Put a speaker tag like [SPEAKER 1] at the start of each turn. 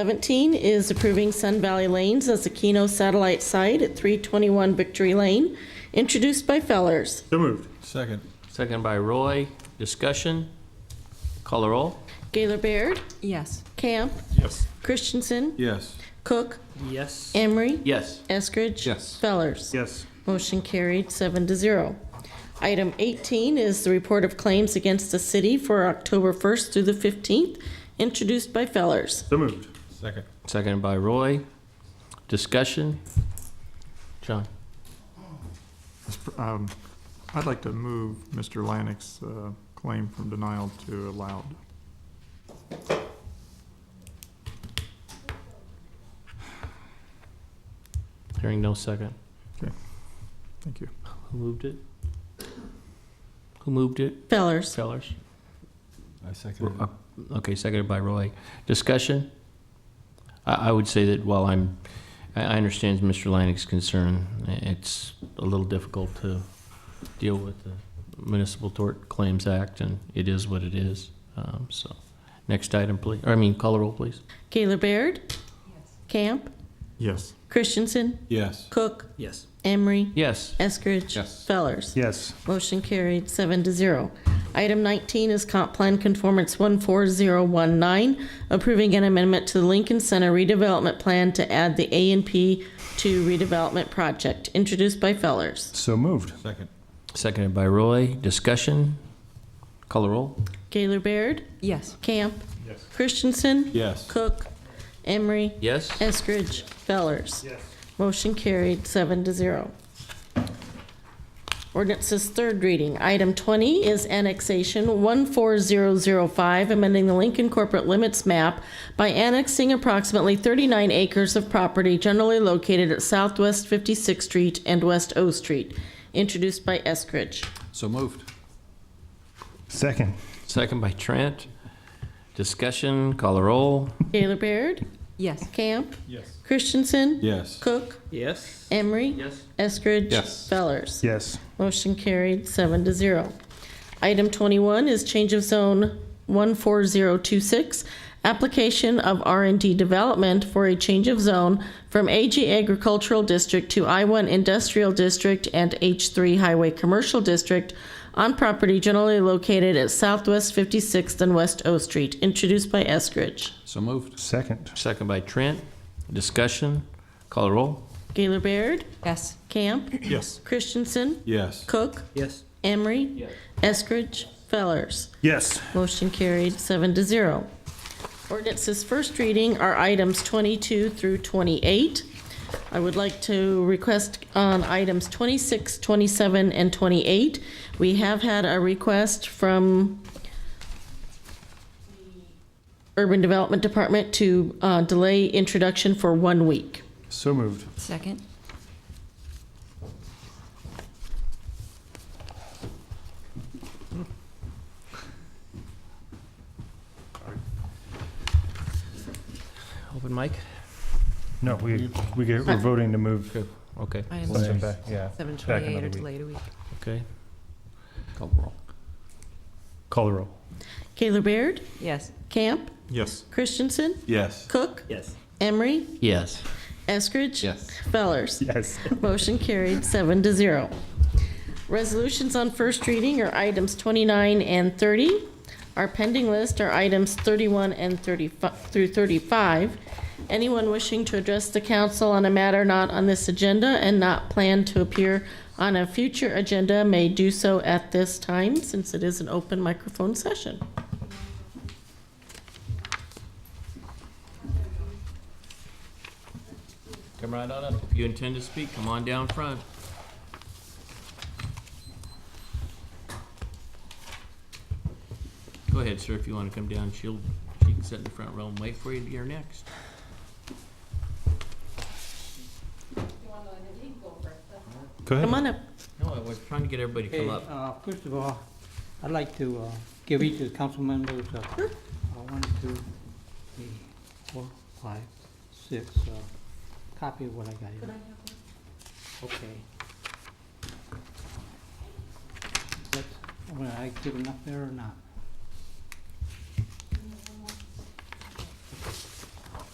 [SPEAKER 1] 17 is approving Sun Valley Lanes as a Keno satellite site at 321 Victory Lane, introduced by Fellers.
[SPEAKER 2] So moved.
[SPEAKER 3] Second.
[SPEAKER 4] Second by Roy. Discussion? Call the roll?
[SPEAKER 1] Gaylor Baird,
[SPEAKER 5] Yes.
[SPEAKER 1] Camp,
[SPEAKER 2] Yes.
[SPEAKER 1] Christensen,
[SPEAKER 3] Yes.
[SPEAKER 1] Cook,
[SPEAKER 4] Yes.
[SPEAKER 1] Emery,
[SPEAKER 4] Yes.
[SPEAKER 1] Eskridge.
[SPEAKER 3] Yes.
[SPEAKER 1] Fellers.
[SPEAKER 2] Yes.
[SPEAKER 1] Motion carried, seven to zero. Item 18 is the report of claims against the city for October 1st through the 15th, introduced by Fellers.
[SPEAKER 2] So moved.
[SPEAKER 3] Second.
[SPEAKER 4] Second by Roy. Discussion? John?
[SPEAKER 6] Um, I'd like to move Mr. Lannick's uh, claim from denial to allowed.
[SPEAKER 4] Hearing no second.
[SPEAKER 6] Thank you.
[SPEAKER 4] Who moved it? Who moved it?
[SPEAKER 1] Fellers.
[SPEAKER 4] Fellers?
[SPEAKER 3] I second
[SPEAKER 4] Uh, Okay, seconded by Roy. Discussion? I, I would say that while I'm, I, I understand Mr. Lannick's concern, it's a little difficult to deal with the Municipal Tort Claims Act, and it is what it is. Um, so, next item, please, or I mean, call the roll, please.
[SPEAKER 1] Gaylor Baird, Camp,
[SPEAKER 6] Yes.
[SPEAKER 3] uh,
[SPEAKER 1] Christensen,
[SPEAKER 3] Yes.
[SPEAKER 1] Cook,
[SPEAKER 4] Yes.
[SPEAKER 1] Emery,
[SPEAKER 4] Yes.
[SPEAKER 1] Eskridge.
[SPEAKER 3] Yes.
[SPEAKER 1] Fellers.
[SPEAKER 2] Yes.
[SPEAKER 1] Motion carried, seven to zero. Item 19 is Comp Plan Conformance 14019, approving an amendment to the Lincoln Center redevelopment plan to add the A and P to redevelopment project, introduced by Fellers.
[SPEAKER 2] So moved.
[SPEAKER 3] Second.
[SPEAKER 4] Seconded by Roy. Discussion? Call the roll?
[SPEAKER 1] Gaylor Baird,
[SPEAKER 5] Yes.
[SPEAKER 1] Camp,
[SPEAKER 2] Yes.
[SPEAKER 1] Christensen,
[SPEAKER 3] Yes.
[SPEAKER 1] Cook, Emery,
[SPEAKER 4] Yes.
[SPEAKER 1] Eskridge, Fellers.
[SPEAKER 2] Yes.
[SPEAKER 1] Motion carried, seven to zero. Ordinance's third reading. Item 20 is annexation 14005, amending the Lincoln corporate limits map by annexing approximately 39 acres of property generally located at Southwest 56th Street and West O Street, introduced by Eskridge.
[SPEAKER 3] So moved.
[SPEAKER 2] Second.
[SPEAKER 4] Second by Trent. Discussion? Call the roll?
[SPEAKER 1] Gaylor Baird?
[SPEAKER 5] Yes.
[SPEAKER 1] Camp?
[SPEAKER 3] Yes.
[SPEAKER 1] Christensen?
[SPEAKER 3] Yes.
[SPEAKER 1] Cook?
[SPEAKER 4] Yes.
[SPEAKER 1] Emery?
[SPEAKER 4] Yes.
[SPEAKER 1] Eskridge?
[SPEAKER 3] Yes.
[SPEAKER 1] Fellers?
[SPEAKER 2] Yes.
[SPEAKER 1] Motion carried, seven to zero. Item 21 is change of zone 14026, application of r and D development for a change of zone from AG Agricultural District to I-1 Industrial District and H3 Highway Commercial District on property generally located at Southwest 56th and West O Street, introduced by Eskridge.
[SPEAKER 3] So moved.
[SPEAKER 2] Second.
[SPEAKER 4] Second by Trent. Discussion? Call the roll?
[SPEAKER 1] Gaylor Baird?
[SPEAKER 5] Yes.
[SPEAKER 1] Camp?
[SPEAKER 6] Yes.
[SPEAKER 1] Christensen?
[SPEAKER 3] Yes.
[SPEAKER 1] Cook?
[SPEAKER 4] Yes.
[SPEAKER 1] Emery? Eskridge? Fellers?
[SPEAKER 2] Yes.
[SPEAKER 1] Motion carried, seven to zero. Ordinance's first reading are items 22 through 28. I would like to request on items 26, 27, and 28. We have had a request from the Urban Development Department to uh, delay introduction for one week.
[SPEAKER 2] So moved.
[SPEAKER 5] Second?
[SPEAKER 4] Open mic?
[SPEAKER 2] No, we, we get, we're voting to move.
[SPEAKER 4] Okay,
[SPEAKER 5] Item
[SPEAKER 2] Send it back, yeah.
[SPEAKER 5] seven
[SPEAKER 2] Back another
[SPEAKER 5] twenty-eight or
[SPEAKER 2] week.
[SPEAKER 5] delayed a week.
[SPEAKER 4] okay.
[SPEAKER 3] Call the roll.
[SPEAKER 2] Call the roll.
[SPEAKER 1] Gaylor Baird?
[SPEAKER 5] Yes.
[SPEAKER 1] Camp?
[SPEAKER 6] Yes.
[SPEAKER 1] Christensen?
[SPEAKER 3] Yes.
[SPEAKER 1] Cook? Yes. Emery?
[SPEAKER 4] Yes.
[SPEAKER 1] Eskridge?
[SPEAKER 3] Yes.
[SPEAKER 1] Fellers?
[SPEAKER 2] Yes.
[SPEAKER 1] Motion carried, seven to zero. Resolutions on first reading are items 29 and 30. Our pending list are items 31 and 35 through 35. Anyone wishing to address the council on a matter not on this agenda and not planned to appear on a future agenda may do so at this time, since it is an open microphone session.
[SPEAKER 4] Come right on up. If you intend to speak, come on down front. Go ahead, sir, if you want to come down, she'll, she can sit in the front row and wait for you, you're next.
[SPEAKER 1] Come
[SPEAKER 2] Go ahead.
[SPEAKER 1] on up.
[SPEAKER 4] No, I was trying to get everybody to
[SPEAKER 7] Okay,
[SPEAKER 4] come up.
[SPEAKER 7] uh, First of all, I'd like to uh, give each of the council members uh, uh, one, two, three, four, five, six, uh, copy of what I got here. Okay. Let's- Would I give enough there or not?